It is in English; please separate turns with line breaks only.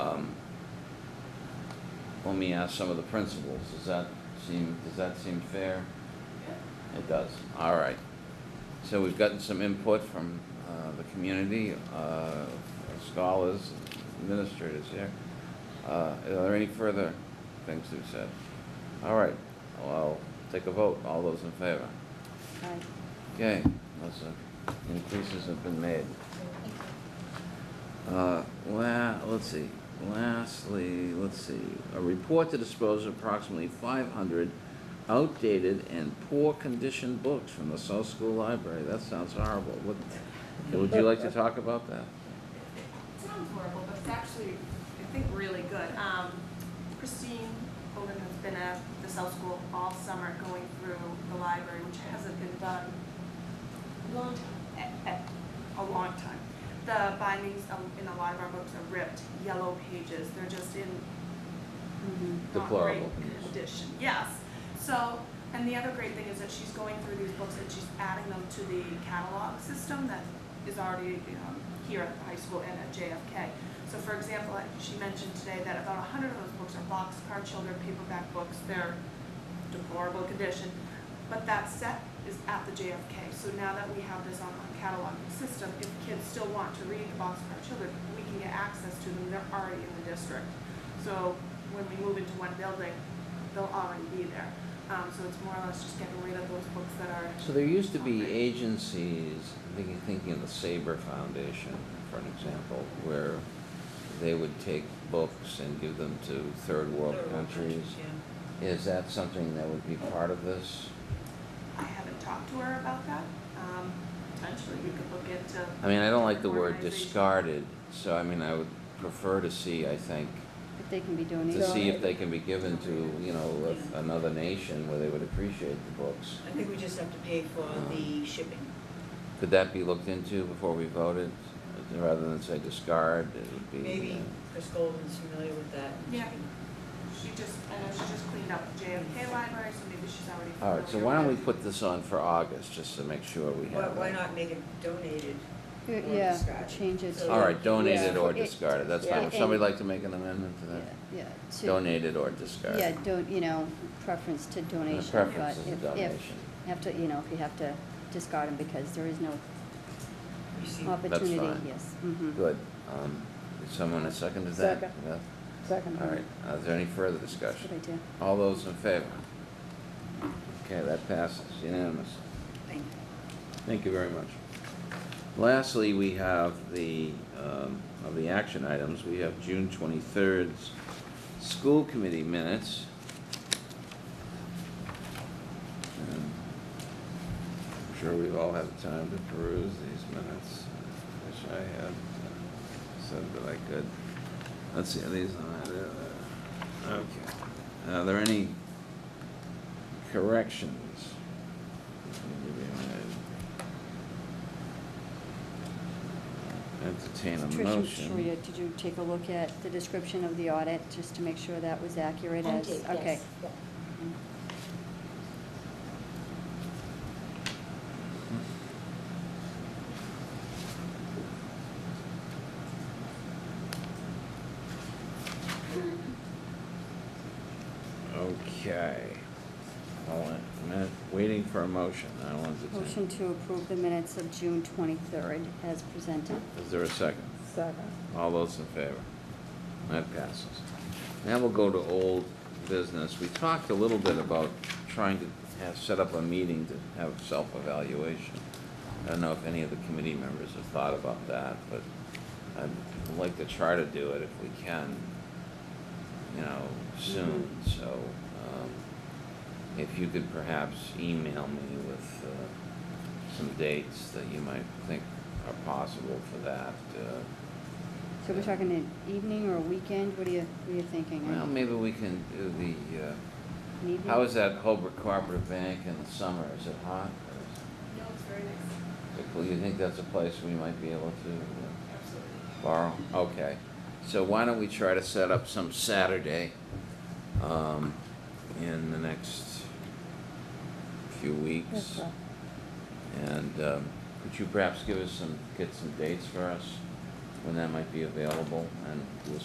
Um, let me ask some of the principals, does that seem, does that seem fair? It does, all right. So we've gotten some input from uh, the community, uh, scholars, administrators here. Uh, Are there any further things to be said? All right, well, I'll take a vote, all those in favor? Okay, those uh, increases have been made. Uh, la, let's see, lastly, let's see, a report to dispose of approximately five hundred outdated and poor condition books from the South School Library, that sounds horrible, what, would you like to talk about that?
It sounds horrible, but it's actually, I think, really good. Um, Christine Holden has been at the South School all summer going through the library, which hasn't been done long, a- a, a long time. The bindings of- in a lot of our books are ripped, yellow pages, they're just in not great
Deplorable condition.
condition, yes. So, and the other great thing is that she's going through these books and she's adding them to the catalog system that is already um, here at the high school and at JFK. So for example, like she mentioned today that about a hundred of those books are boxcar children paperback books, they're deplorable condition. But that set is at the JFK, so now that we have this online cataloging system, if kids still want to read the boxcar children, we can get access to them, they're already in the district. So when we move into one building, they'll already be there. Um, so it's more or less just getting rid of those books that are,
So there used to be agencies, I'm thinking, thinking of the Sabre Foundation, for an example, where they would take books and give them to third world countries. Is that something that would be part of this?
I haven't talked to her about that. Um, potentially we could look into.
I mean, I don't like the word
organization.
discarded, so I mean, I would prefer to see, I think,
If they can be
to
donated.
see if they can be given to, you know, with another nation where they would appreciate the books.
I think we just have to pay for
Uh-huh.
the shipping.
Could that be looked into before we voted, rather than say discard, it would be.
Maybe
uh,
Chris Golden's familiar with that.
Yeah. She just, I know she just cleaned up the JFK library, so maybe she's already.
All right, so
familiar
why don't we
with-
put this on for August, just to make sure we
Why,
have it?
why not make it donated?
Uh,
Or
Yeah,
discard.
change it to.
All right, donated
yeah,
or
it-
discarded, that's fine.
yeah,
Would somebody
and-
like to make an amendment to
Yeah,
that?
yeah, to-
Donated or discarded?
Yeah, don't, you know, preference to
The
donation, but
preference is a
if, if,
donation.
have to, you know, if you have to discard them because there is no
Receive.
opportunity,
fine.
yes, mhm.
Good. Um, did Someone has seconded that?
Second.
Yeah?
Second.
All right, Uh, is there any further
That's a good
discussion?
idea.
All those in favor? Okay, that passes unanimously.
Thank you.
Thank you very much. Lastly, we have the, um, of the action items, we have June twenty-third's school committee minutes. Um, I'm sure we've all had time to peruse these minutes. I Wish I had uh, said that I could. Let's see, are these, uh, okay. Are there any corrections? Entertain a
Tricia,
motion.
Maria, did you take a look at the description of the audit, just to make sure that was accurate
I
as,
did, yes.
okay.
Yeah.
Okay. Hold on a minute. Waiting for a motion. I wanted to.
Motion to approve the minutes of June twenty-third as presented.
Is there a second?
Second.
All those in favor? That passes. Now we'll go to old business. We talked a little bit about trying to have, set up a meeting to have self-evaluation. I don't know if any of the committee members have thought about that, but I'd like to try to do it if we can, you know, soon. So, um, if you could perhaps email me with, uh, some dates that you might think are possible for that, uh,
So we're talking an evening or a weekend, what are you, what are you thinking?
Well, maybe we can do the, uh,
An evening?
how is that Holbrook Cooperative Bank in the summer? Is it hot?
No, it's very nice,
Do you think that's a place we might be able to
absolutely.
uh, borrow? Okay. So why don't we try to set up some Saturday um, in the next few weeks?
Okay.
And um, could you perhaps give us some, get some dates for us when that might be available? And we'll